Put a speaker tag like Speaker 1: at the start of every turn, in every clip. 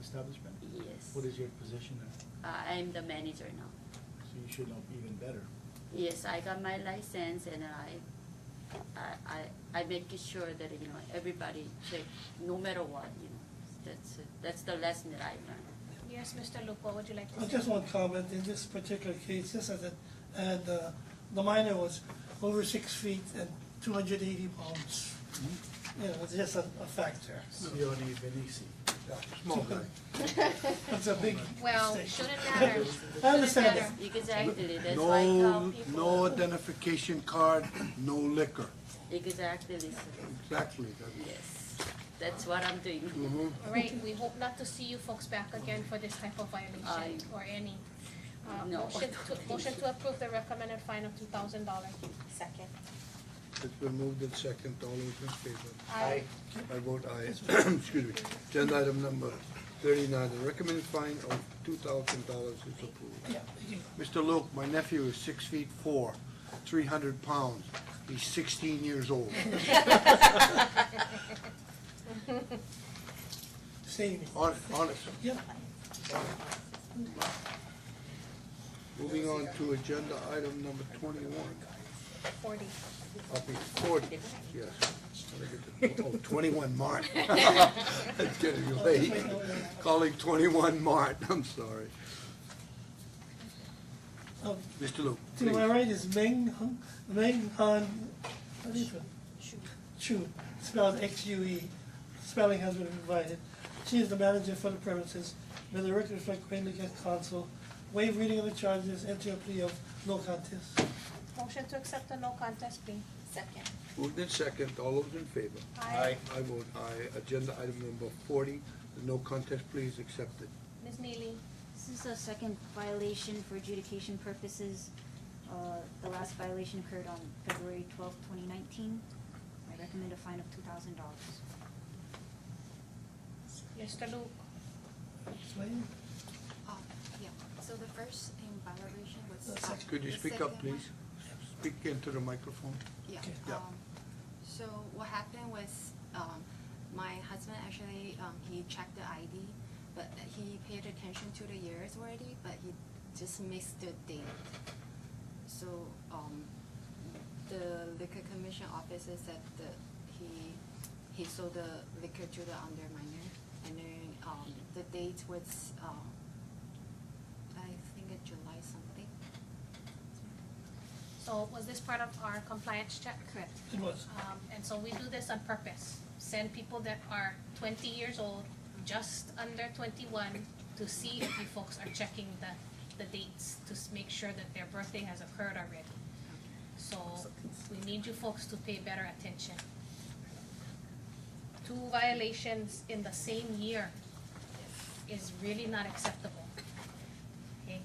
Speaker 1: establishment?
Speaker 2: Yes.
Speaker 1: What is your position there?
Speaker 2: Uh, I'm the manager now.
Speaker 1: So you should know even better.
Speaker 2: Yes, I got my license and I, I, I, I make it sure that, you know, everybody check, no matter what, you know. That's, it. that's the lesson that I learned.
Speaker 3: Yes, Mr. Luke, what would you like to
Speaker 4: Uh,
Speaker 3: say?
Speaker 4: Just one comment, in this particular case, this is it, and uh, the minor was over six feet and two hundred eighty pounds. You know, it's just a, a factor.
Speaker 1: Sione Venisi.
Speaker 4: Small guy. That's a big
Speaker 3: Well,
Speaker 4: mistake.
Speaker 3: shouldn't matter.
Speaker 4: I understand
Speaker 3: Shouldn't matter.
Speaker 2: Exactly, that's why I tell
Speaker 5: No, no
Speaker 2: people.
Speaker 5: identification card, no liquor.
Speaker 2: Exactly, sir.
Speaker 5: Exactly. that-
Speaker 2: yes. That's what I'm doing.
Speaker 5: Mhm.
Speaker 3: All right, we hope not to see you folks back again for this type of violation
Speaker 2: Aye.
Speaker 3: or any. Uh,
Speaker 2: No.
Speaker 3: Motion to, motion to approve the recommended fine of two thousand dollar.
Speaker 6: Second.
Speaker 5: It's been moved in second, all those in favor?
Speaker 3: Aye.
Speaker 5: I vote aye. Excuse me. Agenda item number thirty-nine, the recommended fine of two thousand dollars is approved.
Speaker 4: Yeah, you-
Speaker 5: Mr. Luke, my nephew is six feet four, three hundred pounds. He's sixteen years old.
Speaker 4: Save me.
Speaker 5: Hon- Honest.
Speaker 4: Yep.
Speaker 5: Moving on to agenda item number twenty-one.
Speaker 3: Forty.
Speaker 5: I'll be forty, yes. When I get to- Oh, twenty-one Mart. It's getting late. Calling twenty-one Mart, I'm sorry.
Speaker 4: Um,
Speaker 5: Mr. Luke,
Speaker 4: To my
Speaker 5: please.
Speaker 4: right is Meng, Hun- Meng Han, what is it? Chu, spelled X-U-E, spelling has been provided. She is the manager for the premises. May the record reflect Queen Liquor Council. Waive reading of the charges, enter a plea of no contest.
Speaker 3: Motion to accept the no contest plea.
Speaker 6: Second.
Speaker 5: moved in second, all those in favor?
Speaker 3: Aye.
Speaker 5: I vote aye. Agenda item number forty, the no contest plea is accepted.
Speaker 3: Ms. Neely,
Speaker 7: This is a second violation for adjudication purposes. Uh, The last violation occurred on February twelfth, twenty nineteen. I recommend a fine of two thousand dollars.
Speaker 3: Mr. Luke,
Speaker 4: Explain?
Speaker 8: Um, yeah, so the first in violation was.
Speaker 4: Uh, sec-
Speaker 5: Could you
Speaker 8: the
Speaker 5: speak up,
Speaker 8: second one-
Speaker 5: please? Speak into the microphone.
Speaker 8: Yeah,
Speaker 4: Okay.
Speaker 5: Yeah.
Speaker 8: um, so what happened was, um, my husband actually, um, he checked the ID, but he paid attention to the years already, but he just missed the date. So, um, the liquor commission officer said that he, he sold the liquor to the under minor, and then, um, the date was, um, I think it July something.
Speaker 3: so was this part of our compliance check?
Speaker 8: Correct.
Speaker 4: It was.
Speaker 3: Um, and so we do this on purpose, send people that are twenty years old, just under twenty-one, to see if you folks are checking the, the dates, to s- make sure that their birthday has occurred already. So, we need you folks to pay better attention. Two violations in the same year is really not acceptable, okay?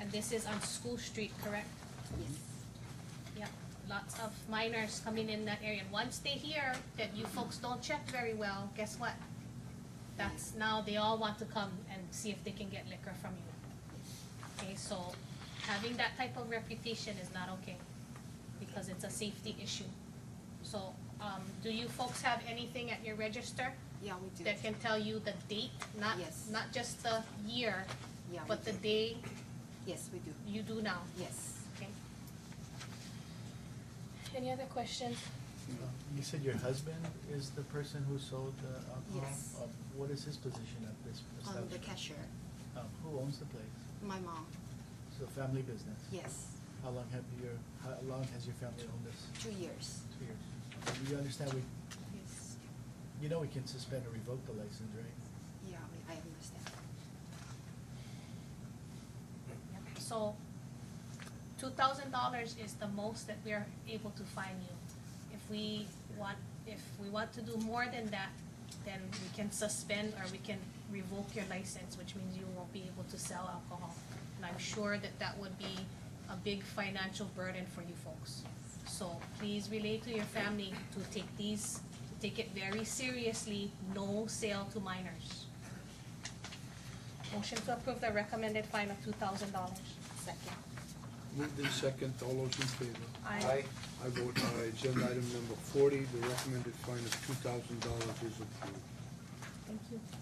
Speaker 3: And this is on School Street, correct? Yeah, lots of minors coming in that area. And once they hear that you folks don't check very well, guess what? That's now they all want to come and see if they can get liquor from you. Okay, so having that type of reputation is not okay because it's a safety issue. So, um, do you folks have anything at your register
Speaker 8: Yeah, we do.
Speaker 3: that can tell you the date, not,
Speaker 8: Yes.
Speaker 3: not just the year,
Speaker 8: Yeah, we
Speaker 3: but the
Speaker 8: do.
Speaker 3: day
Speaker 8: Yes, we do.
Speaker 3: you do now?
Speaker 8: Yes.
Speaker 3: Okay. Any other questions?
Speaker 1: You said your husband is the person who sold the alcohol?
Speaker 8: Yes.
Speaker 1: Um, What is his position at this
Speaker 8: On the
Speaker 1: establishment?
Speaker 8: cashier,
Speaker 1: Um, Who owns the place?
Speaker 8: my mom,
Speaker 1: It's a family business?
Speaker 8: yes,
Speaker 1: How long have your, how long has your family owned this?
Speaker 8: two years.
Speaker 1: Two years. Do You understand, we,
Speaker 8: Yes.
Speaker 1: you know we can suspend or revoke the license, right?
Speaker 8: Yeah, I I understand.
Speaker 3: So, two thousand dollars is the most that we are able to fine you. If we want, if we want to do more than that, then we can suspend or we can revoke your license, which means you won't be able to sell alcohol. And I'm sure that that would be a big financial burden for you folks. So please relay to your family to take these, to take it very seriously, no sale to minors. Motion to approve the recommended fine of two thousand dollars.
Speaker 8: Second,
Speaker 5: Moved in second, all those in favor?
Speaker 3: Aye.
Speaker 5: I vote aye. Agenda item number forty, the recommended fine of two thousand dollars is approved.
Speaker 3: Thank you.